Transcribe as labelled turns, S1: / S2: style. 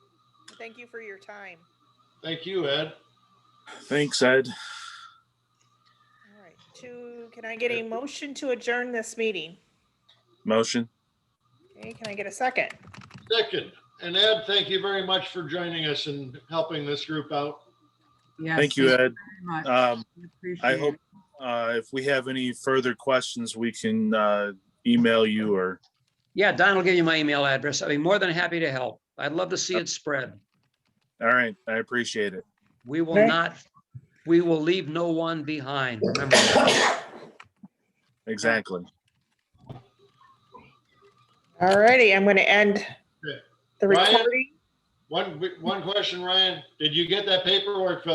S1: Thank you for your time.
S2: Thank you, Ed.
S3: Thanks, Ed.
S1: All right, two, can I get a motion to adjourn this meeting?
S3: Motion.
S1: Okay, can I get a second?
S2: Second, and Ed, thank you very much for joining us and helping this group out.
S4: Yes,
S3: Thank you, Ed.
S4: very much.
S3: Um,
S4: We appreciate
S3: I
S4: it.
S3: hope, uh, if we have any further questions, we can, uh, email you or,
S5: Yeah, Don will give you my email address. I'd be more than happy to help. I'd love to see it spread.
S3: all right, I appreciate it.
S5: We will
S1: Thank-
S5: not, we will leave no one behind. Remember that.
S3: Exactly.
S1: All righty, I'm going to end the
S2: Ryan?
S1: recording.
S2: One, one question, Ryan, did you get that paperwork filled